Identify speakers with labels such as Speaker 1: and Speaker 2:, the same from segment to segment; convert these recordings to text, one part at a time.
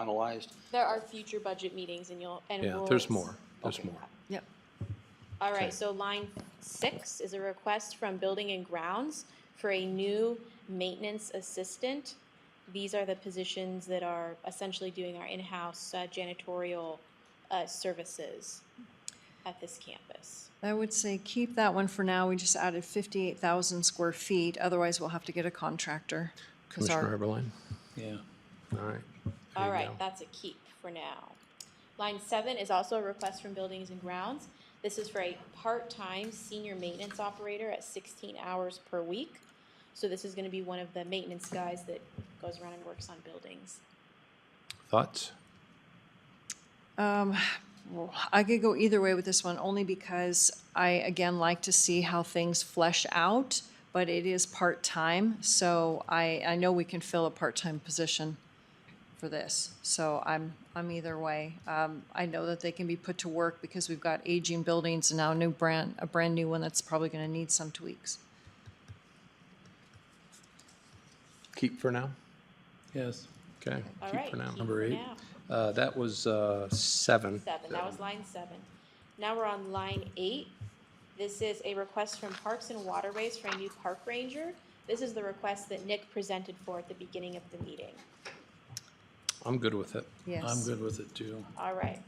Speaker 1: finalized?
Speaker 2: There are future budget meetings and you'll, and
Speaker 3: Yeah,
Speaker 2: we'll.
Speaker 3: there's more, there's
Speaker 1: Okay.
Speaker 3: more.
Speaker 4: Yep.
Speaker 2: All
Speaker 3: Okay.
Speaker 2: right, so line six is a request from Building and Grounds for a new maintenance assistant. These are the positions that are essentially doing our in-house uh, janitorial uh, services at this campus.
Speaker 4: I would say keep that one for now. We just added fifty-eight thousand square feet, otherwise we'll have to get a contractor. 'cause our-
Speaker 3: Commissioner Heberlein,
Speaker 1: Yeah.
Speaker 3: all right. There
Speaker 2: All
Speaker 3: you
Speaker 2: right,
Speaker 3: go.
Speaker 2: that's a keep for now. Line seven is also a request from Buildings and Grounds. This is for a part-time senior maintenance operator at sixteen hours per week. So this is gonna be one of the maintenance guys that goes around and works on buildings.
Speaker 3: Thoughts?
Speaker 4: Um, well, I could go either way with this one, only because I, again, like to see how things flesh out, but it is part-time, so I, I know we can fill a part-time position for this, so I'm, I'm either way. Um, I know that they can be put to work because we've got aging buildings and now a new brand, a brand-new one that's probably gonna need some tweaks.
Speaker 3: Keep for now?
Speaker 1: Yes.
Speaker 3: Okay,
Speaker 2: All
Speaker 3: keep
Speaker 2: right,
Speaker 3: for now.
Speaker 2: keep
Speaker 3: Number
Speaker 2: for
Speaker 3: eight.
Speaker 2: now.
Speaker 3: Uh, that was, uh, seven.
Speaker 2: Seven, that was line seven. Now we're on line eight. This is a request from Parks and Waterways for a new park ranger. This is the request that Nick presented for at the beginning of the meeting.
Speaker 3: I'm good with it.
Speaker 4: Yes.
Speaker 1: I'm good with it too.
Speaker 2: All right.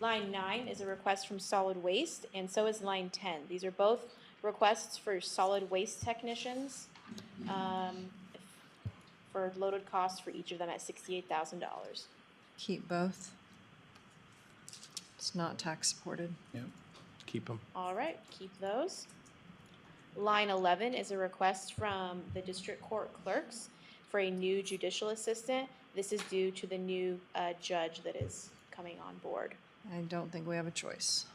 Speaker 2: Line nine is a request from solid waste, and so is line ten. These are both requests for solid waste technicians, um, for loaded costs for each of them at sixty-eight thousand dollars.
Speaker 4: Keep both. It's not tax-supported.
Speaker 1: Yep.
Speaker 3: Keep them.
Speaker 2: All right, keep those. Line eleven is a request from the district court clerks for a new judicial assistant. This is due to the new, uh, judge that is coming on board.
Speaker 4: I don't think we have a choice.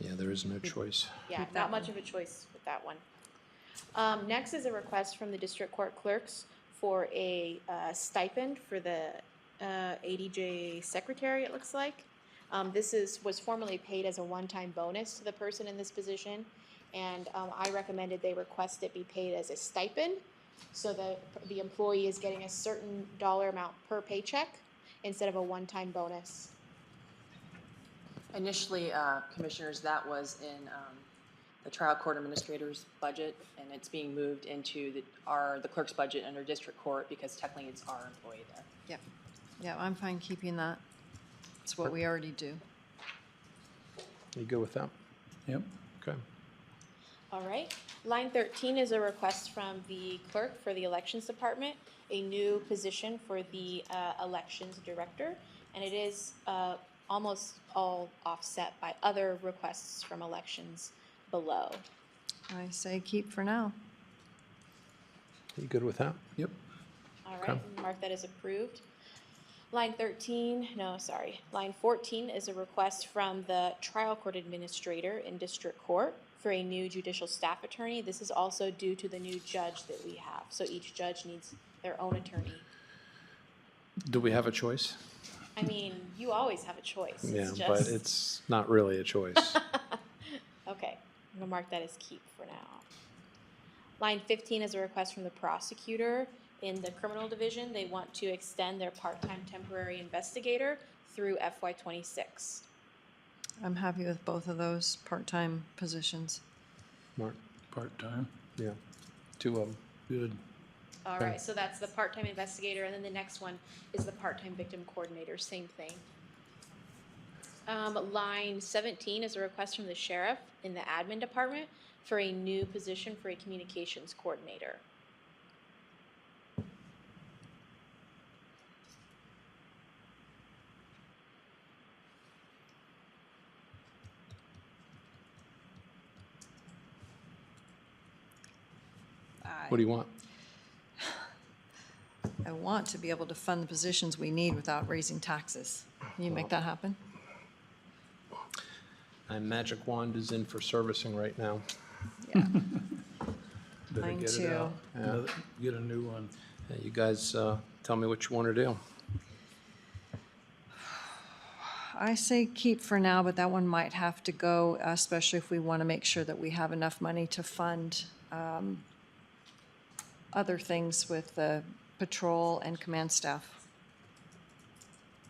Speaker 3: Yeah, there is no choice.
Speaker 2: Yeah,
Speaker 4: Keep
Speaker 2: not
Speaker 4: that
Speaker 2: much of a choice with that one. Um, next is a request from the district court clerks for a, uh, stipend for the, uh, ADJ secretary, it looks like. Um, this is, was formerly paid as a one-time bonus to the person in this position, and, um, I recommended they request it be paid as a stipend, so that the employee is getting a certain dollar amount per paycheck instead of a one-time bonus.
Speaker 5: Initially, uh, commissioners, that was in um, the trial court administrator's budget, and it's being moved into the- our, the clerk's budget under district court because technically it's our employee there.
Speaker 4: Yep. Yeah, I'm fine keeping that. It's what we already do.
Speaker 3: You go with that?
Speaker 1: Yep.
Speaker 3: Okay.
Speaker 2: All right. Line 13 is a request from the clerk for the Elections Department, a new position for the uh, Elections Director, and it is uh, almost all offset by other requests from elections below.
Speaker 4: I say keep for now.
Speaker 3: You good with that?
Speaker 1: Yep.
Speaker 2: All
Speaker 3: Okay.
Speaker 2: right, mark that as approved. Line 13, no, sorry, line 14 is a request from the trial court administrator in district court for a new judicial staff attorney. This is also due to the new judge that we have, so each judge needs their own attorney.
Speaker 3: Do we have a choice?
Speaker 2: I mean, you always have a choice,
Speaker 3: Yeah,
Speaker 2: it's
Speaker 3: but
Speaker 2: just,
Speaker 3: it's not really a choice.
Speaker 2: okay, I'm gonna mark that as keep for now. Line 15 is a request from the prosecutor in the criminal division. They want to extend their part-time temporary investigator through FY '26.
Speaker 4: I'm happy with both of those part-time positions.
Speaker 3: Mark,
Speaker 1: Part-time.
Speaker 3: yeah, two of them.
Speaker 1: Good.
Speaker 2: All
Speaker 3: Okay.
Speaker 2: right, so that's the part-time investigator, and then the next one is the part-time victim coordinator, same thing. Um, line seventeen is a request from the sheriff in the admin department for a new position for a communications coordinator.
Speaker 3: What do you want?
Speaker 4: I want to be able to fund the positions we need without raising taxes. Can you make that happen?
Speaker 3: My magic wand is in for servicing right now.
Speaker 4: Yeah.
Speaker 3: Better
Speaker 4: Mine
Speaker 3: get it
Speaker 4: too.
Speaker 3: out. Yeah.
Speaker 1: Another- Get a new one.
Speaker 3: Yeah, You guys, uh, tell me what you want to do.
Speaker 4: I say keep for now, but that one might have to go, especially if we want to make sure that we have enough money to fund um, other things with the patrol and command staff.